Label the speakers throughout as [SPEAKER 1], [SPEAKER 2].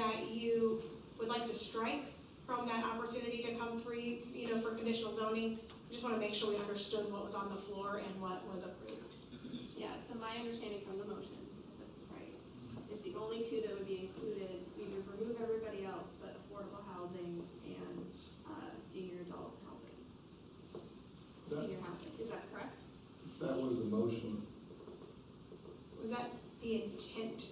[SPEAKER 1] that you would like to strike from that opportunity to come free, you know, for conditional zoning. I Just wanna make sure we understood what was on the floor and what was approved.
[SPEAKER 2] Yeah, so my understanding from the motion, if this is right, is the only two that would be included, either remove everybody else, but affordable housing and, uh, senior adult housing.
[SPEAKER 3] That,
[SPEAKER 2] Senior housing, is that correct?
[SPEAKER 3] that was the motion.
[SPEAKER 1] Was that the intent?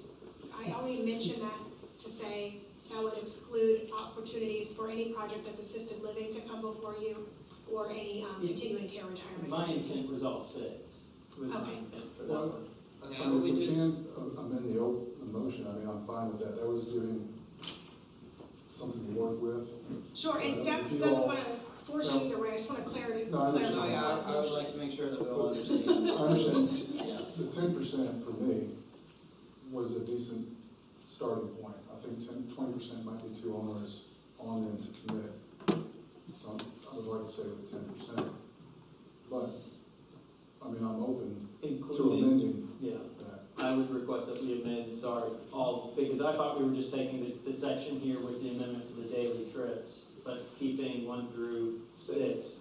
[SPEAKER 1] I only mention that to say that would exclude opportunities for any project that's assisted living to come before you or any um,
[SPEAKER 4] Yeah.
[SPEAKER 1] continuing care retirement.
[SPEAKER 4] My intent was all six, was my
[SPEAKER 1] Okay.
[SPEAKER 4] intent for that one.
[SPEAKER 3] I
[SPEAKER 5] Okay,
[SPEAKER 3] mean,
[SPEAKER 5] we
[SPEAKER 3] if we
[SPEAKER 5] did-
[SPEAKER 3] can uh, amend the old motion, I mean, I'm fine with that. That was giving something to work with.
[SPEAKER 1] Sure, and staff
[SPEAKER 3] If you
[SPEAKER 1] doesn't
[SPEAKER 3] all-
[SPEAKER 1] wanna force you either way, I just wanna clarify.
[SPEAKER 3] No, I understand.
[SPEAKER 5] No, yeah, I I would like to make sure that we all understand,
[SPEAKER 3] I understand
[SPEAKER 5] yes.
[SPEAKER 3] the ten percent for me was a decent starting point. I think ten, twenty percent might be too onerous on them to commit. So I'm- I would like to say with ten percent. But, I mean, I'm open to
[SPEAKER 4] Including,
[SPEAKER 3] amending
[SPEAKER 4] yeah,
[SPEAKER 3] that.
[SPEAKER 4] I would request that we amend, sorry, all, because I thought we were just taking the, the section here with the amendment to the daily trips, but keeping one through six.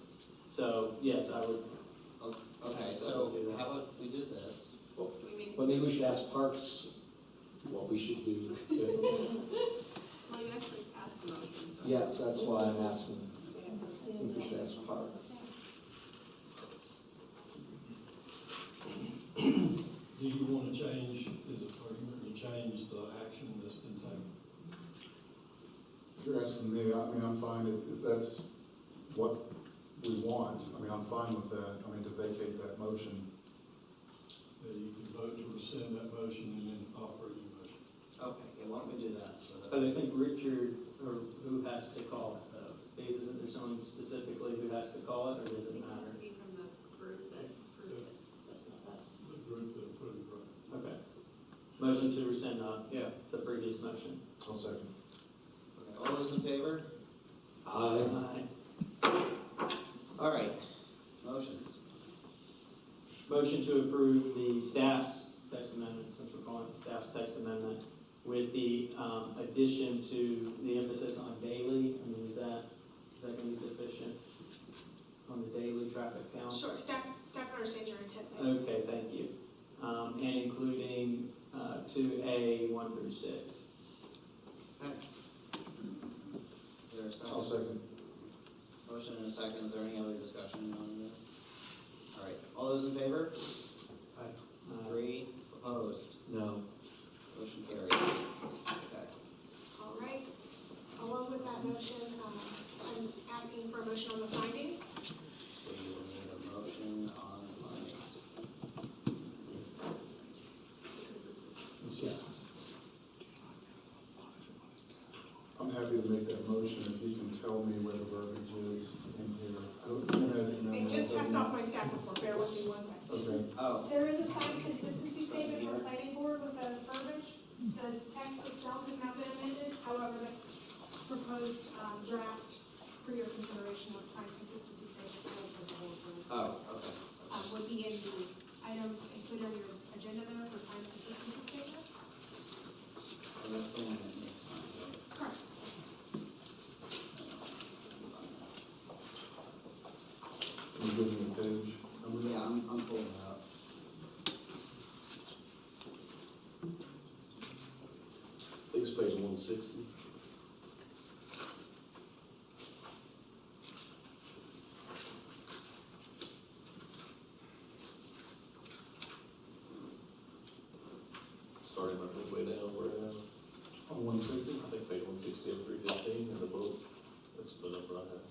[SPEAKER 4] So, yes, I would,
[SPEAKER 5] Okay, so how about we do this?
[SPEAKER 2] We make,
[SPEAKER 6] But maybe we should ask Parks what we should do.
[SPEAKER 2] well, you actually passed the motion. so-
[SPEAKER 6] Yes, that's why I'm asking. I think we should ask Parks.
[SPEAKER 7] Do you want to change, is it, are you going to change the action that's been taken?
[SPEAKER 3] If you're asking me, I mean, I'm fine if, if that's what we want. I mean, I'm fine with that. I mean, to vacate that motion.
[SPEAKER 7] That you can vote to rescind that motion and then offer a new motion?
[SPEAKER 5] Okay, yeah, why don't we do that, so
[SPEAKER 4] but
[SPEAKER 5] that,
[SPEAKER 4] I think Richard, or who has to call it though? Is, is there someone specifically who has to call
[SPEAKER 2] I
[SPEAKER 4] it, or does it
[SPEAKER 2] think it has
[SPEAKER 4] matter?
[SPEAKER 2] to be from the group that approved it.
[SPEAKER 4] That's not us.
[SPEAKER 7] The group that approved, right?
[SPEAKER 4] Okay. Motion to rescind, uh, yeah, the previous motion.
[SPEAKER 3] I'll second.
[SPEAKER 5] okay, all those in favor?
[SPEAKER 6] Aye.
[SPEAKER 4] Aye.
[SPEAKER 5] All right, motions.
[SPEAKER 4] Motion to approve the staff's text amendment, since we're calling it staff's text amendment, with the um, addition to the emphasis on daily. I mean, is that, is that going to be sufficient on the daily traffic count?
[SPEAKER 1] Sure, staff, staff understands your intent there.
[SPEAKER 4] Okay, thank you. Um, And including uh, two A, one through six.
[SPEAKER 5] Is there a
[SPEAKER 3] I'll
[SPEAKER 5] second?
[SPEAKER 3] second.
[SPEAKER 5] Motion and a second, is there any other discussion on this? All right, all those in favor?
[SPEAKER 4] Uh,
[SPEAKER 5] Three opposed,
[SPEAKER 6] No.
[SPEAKER 5] motion carries. Okay.
[SPEAKER 1] All right, along with that motion, um, I'm asking for a motion on the findings.
[SPEAKER 5] So you will need a motion on the findings.
[SPEAKER 6] Yes.
[SPEAKER 3] I'm happy to make that motion if you can tell me where the verbiage is in here. I don't- you guys know
[SPEAKER 1] I
[SPEAKER 3] that,
[SPEAKER 1] just
[SPEAKER 3] don't
[SPEAKER 1] passed
[SPEAKER 3] you?
[SPEAKER 1] off my staff report, bear with me one second.
[SPEAKER 3] Okay,
[SPEAKER 5] Oh,
[SPEAKER 1] There is a signed consistency statement from the planning board with the verbiage. The text itself has not been amended, however, the proposed um, draft for your consideration with signed consistency statement for the whole board.
[SPEAKER 5] oh, okay.
[SPEAKER 1] um, would be in the uh, items included on your agenda there for signed consistency statement.
[SPEAKER 5] So that's the one that makes sense, right?
[SPEAKER 1] Correct.
[SPEAKER 3] can you give me a page? number?
[SPEAKER 5] Yeah, I'm, I'm pulling it up.
[SPEAKER 6] It's page one sixty. Starting like way down, where down?
[SPEAKER 3] On one sixty?
[SPEAKER 6] I think page one sixty and three fifteen and the boat, that's the number I have.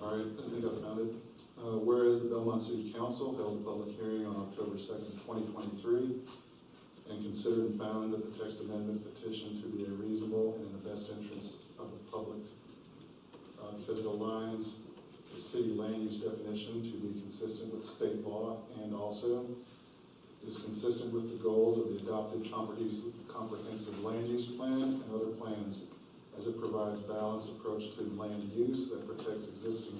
[SPEAKER 3] All right, I think I found it. Uh, Whereas the Belmont City Council held a public hearing on October 2nd, 2023, and considered and found that the text amendment petition to be a reasonable and in the best interest of the public uh, because it aligns the city land use definition to be consistent with state law and also is consistent with the goals of the adopted comprehensive comprehensive land use plan and other plans as it provides balanced approach to land use that protects existing